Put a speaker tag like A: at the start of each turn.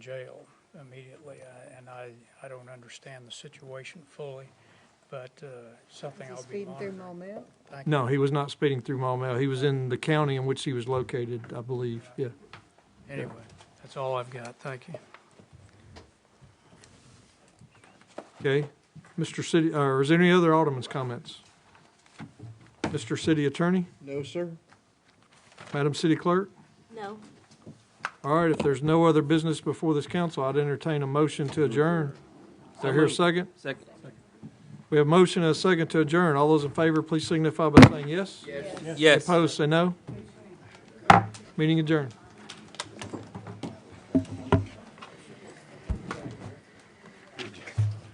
A: jail immediately, I- and I, I don't understand the situation fully, but uh, something I'll be
B: Speeding through
A: monitoring.
B: Maumelle?
A: Thank you.
C: No, he was not speeding through Maumelle. He was in the county in which he was located, I believe, yeah.
A: Anyway, that's all I've got, thank you.
C: Okay. Mr. City, or is there any other Alderman's comments? Mr. City Attorney?
D: No, sir.
C: Madam City Clerk?
E: No.
C: All right, if there's no other business before this council, I'd entertain a motion to adjourn. Is there here a second?
F: Second.
C: We have motion and a second to adjourn. All those in favor, please signify by saying yes.
F: Yes.
C: Opposed, say no. Meeting adjourned.